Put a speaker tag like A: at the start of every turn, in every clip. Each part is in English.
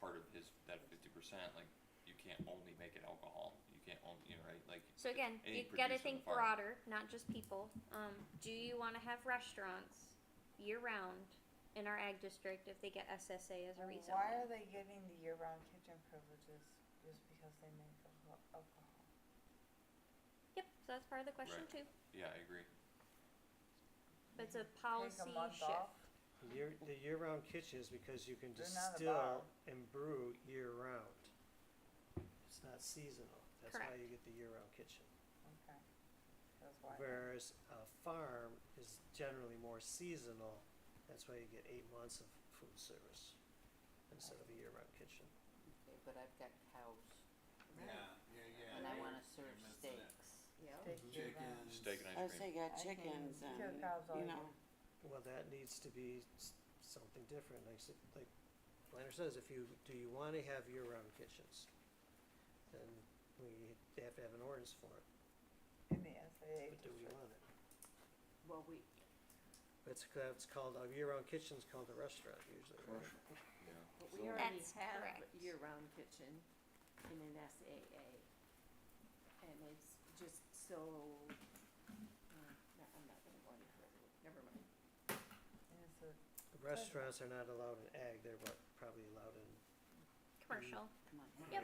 A: part of his, that fifty percent, like, you can't only make it alcohol, you can't only, you know, right, like,
B: So again,
A: Any
B: you gotta
A: producer
B: think
A: farm.
B: broader, not just people. Um, do you wanna have restaurants year round in our ag district if they get SSA as a
C: Well,
B: reason?
C: Why are they getting the year-round kitchen privileges just because they make alco- alcohol?
B: Yep, so that's part of the question
A: Right.
B: too.
A: yeah, I agree.
B: But it's a
C: Take
B: policy
C: a month
B: shift.
C: off?
D: The Year, the year-round kitchen is because you can
C: They're not a
D: distill
C: bar.
D: and brew year-round. It's not seasonal, that's why you get the year-round kitchen.
C: Okay. That's why.
D: Whereas a farm is generally more seasonal, that's why you get eight months of food service instead of a year-round kitchen.
E: Okay, but I've got cows
F: Yeah, yeah, yeah.
E: and I
F: you're-
E: wanna
F: you're
E: serve
F: missing it.
E: steaks. Yeah.
C: Take year-round.
F: Chickens.
A: Steak and
G: I
A: ice
G: was
A: cream,
G: thinking
C: I
G: about
C: can
G: chickens and,
C: kill cows all
G: you
C: year.
G: know,
D: Well, that needs to be s- something different, like, s- like Planner says, if you, do you wanna have year-round kitchens? Then we, they have to have an ordinance for it,
C: In the SAA.
D: but do we want it?
E: Well, we,
D: It's, ca- it's called, a year-round kitchen's called a restaurant usually, right?
A: yeah.
E: but we already
B: That's
E: have a
B: correct.
E: year-round kitchen in an SAA. And it's just so, uh, no, I'm not gonna go any further, never mind.
C: And it's a-
D: Restaurants are not allowed in ag, they're what, probably allowed in
B: Commercial.
E: Come on.
B: Yep.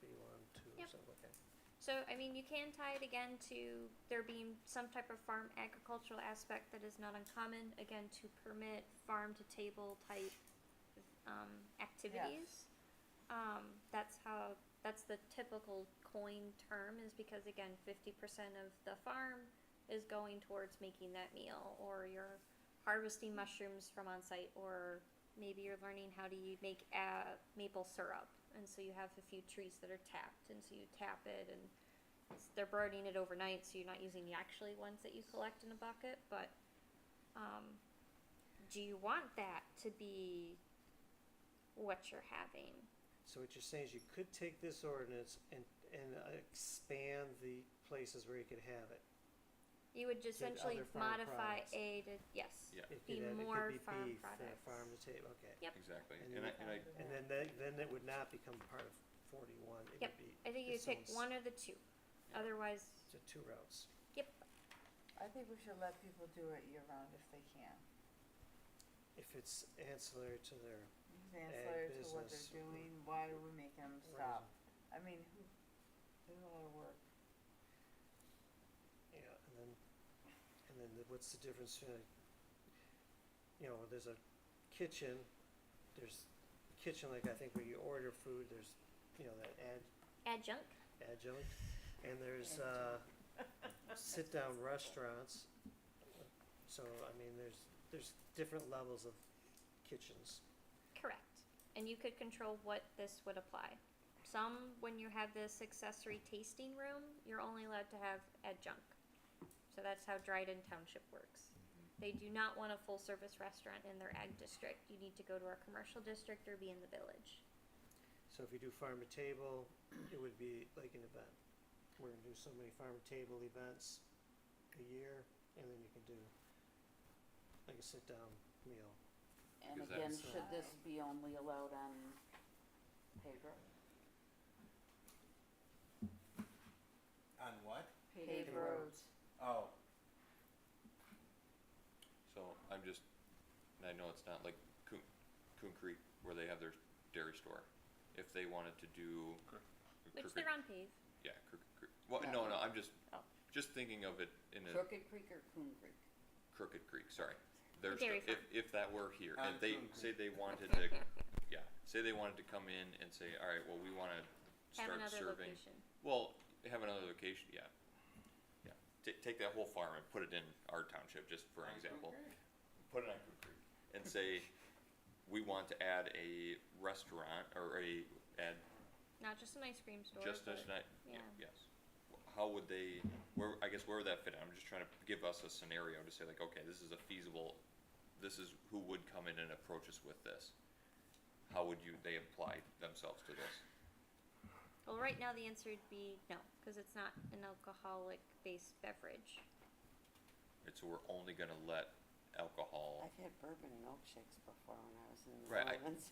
D: B one, two, or
B: Yep.
D: something, okay.
B: So, I mean, you can tie it again to there being some type of farm agricultural aspect that is not uncommon, again, to permit farm to table type um, activities. Um, that's how, that's the typical coin term, is because, again, 50% of the farm is going towards making that meal, or you're harvesting mushrooms from on site, or maybe you're learning how to u- make uh, maple syrup, and so you have a few trees that are tapped, and so you tap it, and it's, they're burning it overnight, so you're not using the actually ones that you collect in a bucket. But um, do you want that to be what you're having?
D: So what you're saying is you could take this ordinance and, and uh, expand the places where you could have it.
B: You would just
D: Did
B: essentially
D: other farm
B: modify
D: products.
B: A to yes.
A: Yeah.
D: It
B: Be
D: could have, it
B: more
D: could be
B: farm
D: beef, uh,
B: products.
D: farm to table, okay.
B: Yep.
A: Exactly,
D: And
A: and I,
D: you-
A: and I,
D: And then that, then it would not become part of forty-one, it
B: Yep.
D: would be,
B: I think you
D: Its
B: pick
D: own s-
B: one or the two.
A: Yeah.
B: Otherwise,
D: it's a two routes.
B: yep.
C: I think we should let people do it year-round if they can.
D: If it's ancillary to their,
C: It's ancillary to what
D: business.
C: they're doing, why do we make them stop? I mean, who, there's a lot of work.
D: yeah, and then, and then the- what's the difference between, a- you know, there's a kitchen, there's kitchen, like I think where you order food, there's, you know, that ad,
B: Adjunct.
D: adjunct, and there's, uh, sit-down restaurants. So, I mean, there's, there's different levels of kitchens.
B: Correct. And you could control what this would apply. Some, when you have this accessory tasting room, you're only allowed to have adjunct. So that's how Dryden Township works. They do not want a full service restaurant in their ag district. You need to go to our commercial district or be in the village.
D: So if you do farm to table, it would be like an event. We're gonna do so many farm to table events a year, and then you can do like a sit-down meal.
E: And
A: Because
E: again,
A: that's-
E: should this be only allowed on paper?
F: On what?
E: Paved
C: Paved
E: road.
C: roads.
F: Oh,
A: so I'm just, and I know it's not like Coon, Coon Creek where they have their dairy store. If they wanted to do.
B: Which
A: Crooked-
B: they're on pave.
A: Yeah, Crooked Creek, well, no, no, I'm just,
B: Oh.
A: just thinking of it in a.
E: Crooked Creek or Coon Creek?
A: Crooked Creek, sorry. There's,
B: dairy
A: if, if that were here, and
F: Uh, On
A: they,
F: Coon
A: say
F: Creek.
A: they wanted to, yeah, say they wanted to come in and say, alright, well, we wanna
B: Have
A: start
B: another
A: serving.
B: location.
A: Well, have another location, yeah. Yeah, ta- take that whole farm and put it in our township, just for an
F: on
A: example.
F: Coon
A: Put it on Coon Creek. And say, we want to add a restaurant, or a, add
B: Not just an ice cream store.
A: just
B: but-
A: as night, yeah,
B: yeah.
A: yes. How would they, where, I guess where would that fit in? I'm just trying to give us a scenario to say like, okay, this is a feasible, this is who would come in and approach us with this. How would you, they apply themselves to this?
B: Well, right now the answer would be no, because it's not an alcoholic based beverage.
A: It's, we're only gonna let alcohol,
G: I've had bourbon and milkshakes before when I was in New
A: Right, I-
G: Orleans.